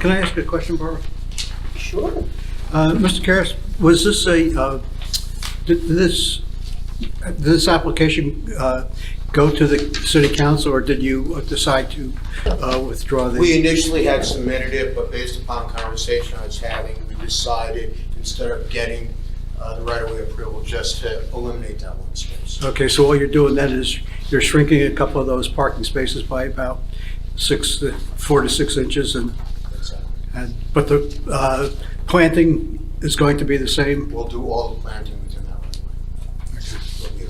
Can I ask a question, Barbara? Sure. Uh, Mr. Karas, was this a, uh, did this, did this application uh, go to the city council, or did you decide to uh, withdraw the? We initially had submitted it, but based upon conversation I was having, we decided instead of getting uh, the right-of-way approval, just to eliminate that one space. Okay, so all you're doing then is you're shrinking a couple of those parking spaces by about six, four to six inches, and, That's it. and- but the uh, planting is going to be the same? We'll do all the planting within that right-of-way.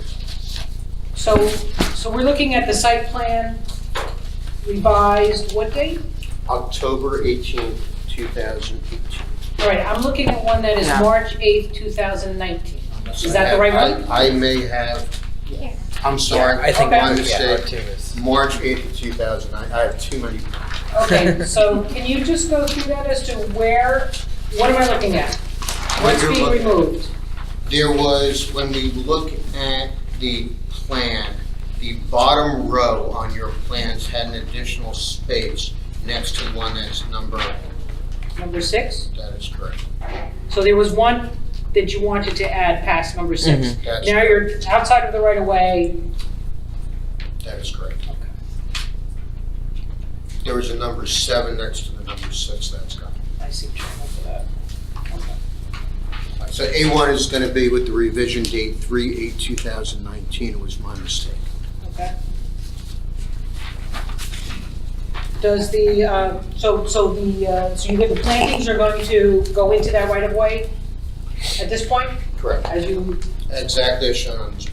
So, so we're looking at the site plan revised, what date? October 18th, 2018. All right, I'm looking at one that is Yeah. March 8th, 2019. Is that the right one? I I may have, I'm sorry. I think Okay. My I'm mistake. is. March 8th, 2009. I have too many. Okay, so can you just go through that as to where, what am I looking at? What What's being you're looking- removed? There was, when we look at the plan, the bottom row on your plans had an additional space next to one that's number, Number six? that is correct. So there was one that you wanted to add past number six. Mhm. That's Now you're outside of the right of way. That is correct. There was a number seven next to the number six that's gone. I see what you're looking for that. Okay. So A1 is going to be with the revision date 3/8/2019. It was my mistake. Okay. Does the, uh, so, so the, uh, so you get the plantings are going to go into that right of way at this point, Correct. as you, Exactly as shown on this.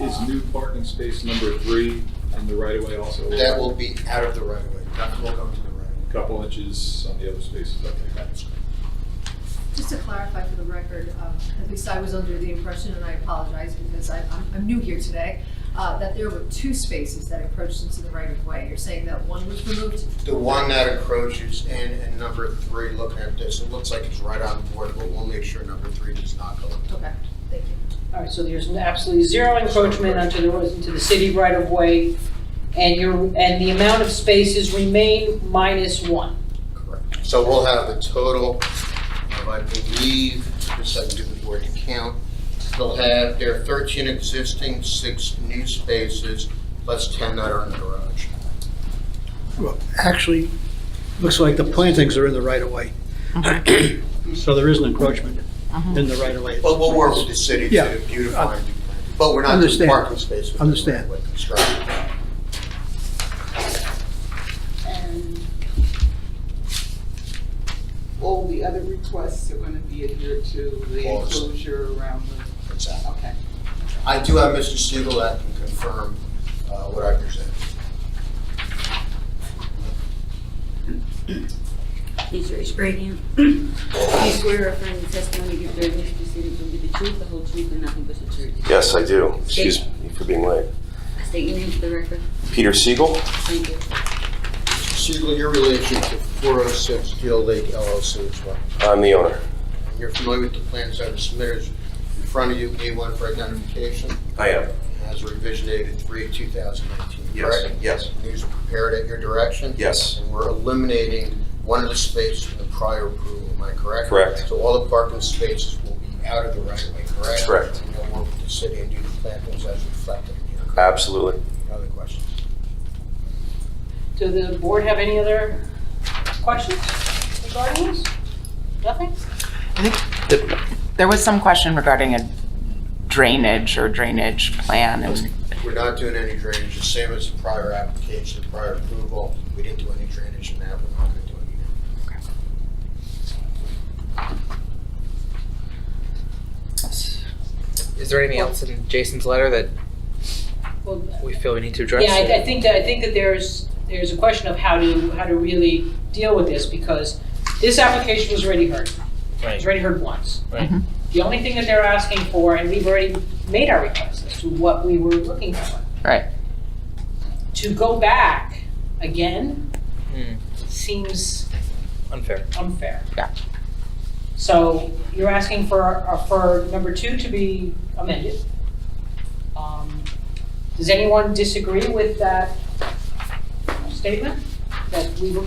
Is new parking space number three in the right of way also? That will be out of the right of way. That will go into the right of way. Couple inches on the other spaces, okay. Just to clarify for the record, um, at least I was under the impression, and I apologize because I- I'm I'm new here today, uh, that there were two spaces that encroached into the right-of-way. You're saying that one was removed? The one that encroaches in, and number three, looking at this, it looks like it's right on board, but we'll make sure number three does not go. up. Okay, thank you. all right, so there's absolutely zero encroachment onto the, into the city right of way, and your, and the amount of spaces remain minus one. Correct. So we'll have a total of, I believe, just I can do the board to count. They'll have, there are 13 existing, six new spaces, plus 10 that are in the garage. Well, Actually, looks like the plantings are in the right of way. So there is an encroachment in the right of way. But we'll work with the city Yeah. to beautify and do planting. But we're not doing Understand. parking space. within the Understand. right-of-way construction. And all the other requests are gonna be adhered to, the All the same. enclosure around the, okay. I do have Mr. Siegel that can confirm uh, what I presented. Please raise your right hand. Do you swear or affirm the testimony you give during this proceeding will be the truth, the whole truth, and nothing but the truth? Yes, I do. Excuse me for being late. State your name for the record. Peter Siegel? Thank you. Siegel, your relation to 406 Deal Lake LLC as well. I'm the owner. You're familiar with the plans that are submitted in front of you, A1 for identification, I am. as revision dated 3/2019, Yes, correct? yes. These were prepared at your direction? Yes. And we're eliminating one of the spaces from the prior approval, am I correct? Correct. So all the parking spaces will be out of the right of way, correct? Correct. And you'll work with the city and do the plantings as reflected in here. Absolutely. Other questions? Do the board have any other questions regarding this? Nothing? There was some question regarding a drainage or drainage plan. It was We're not doing any drainage, the same as the prior application, prior approval. We didn't do any drainage in that, we're not gonna do any now. Is there anything else in Jason's letter that Well, we feel we need to address? Yeah, I, I think that, I think that there's, there's a question of how to, how to really deal with this, because this application was already heard. It was already heard once. Right. Mm-hmm. The only thing that they're asking for, and we've already made our request as to what we were looking for. Right. To go back again Hmm, seems Unfair. unfair. Yeah. So you're asking for, uh, for number two to be amended. Um, Does anyone disagree with that statement? That we were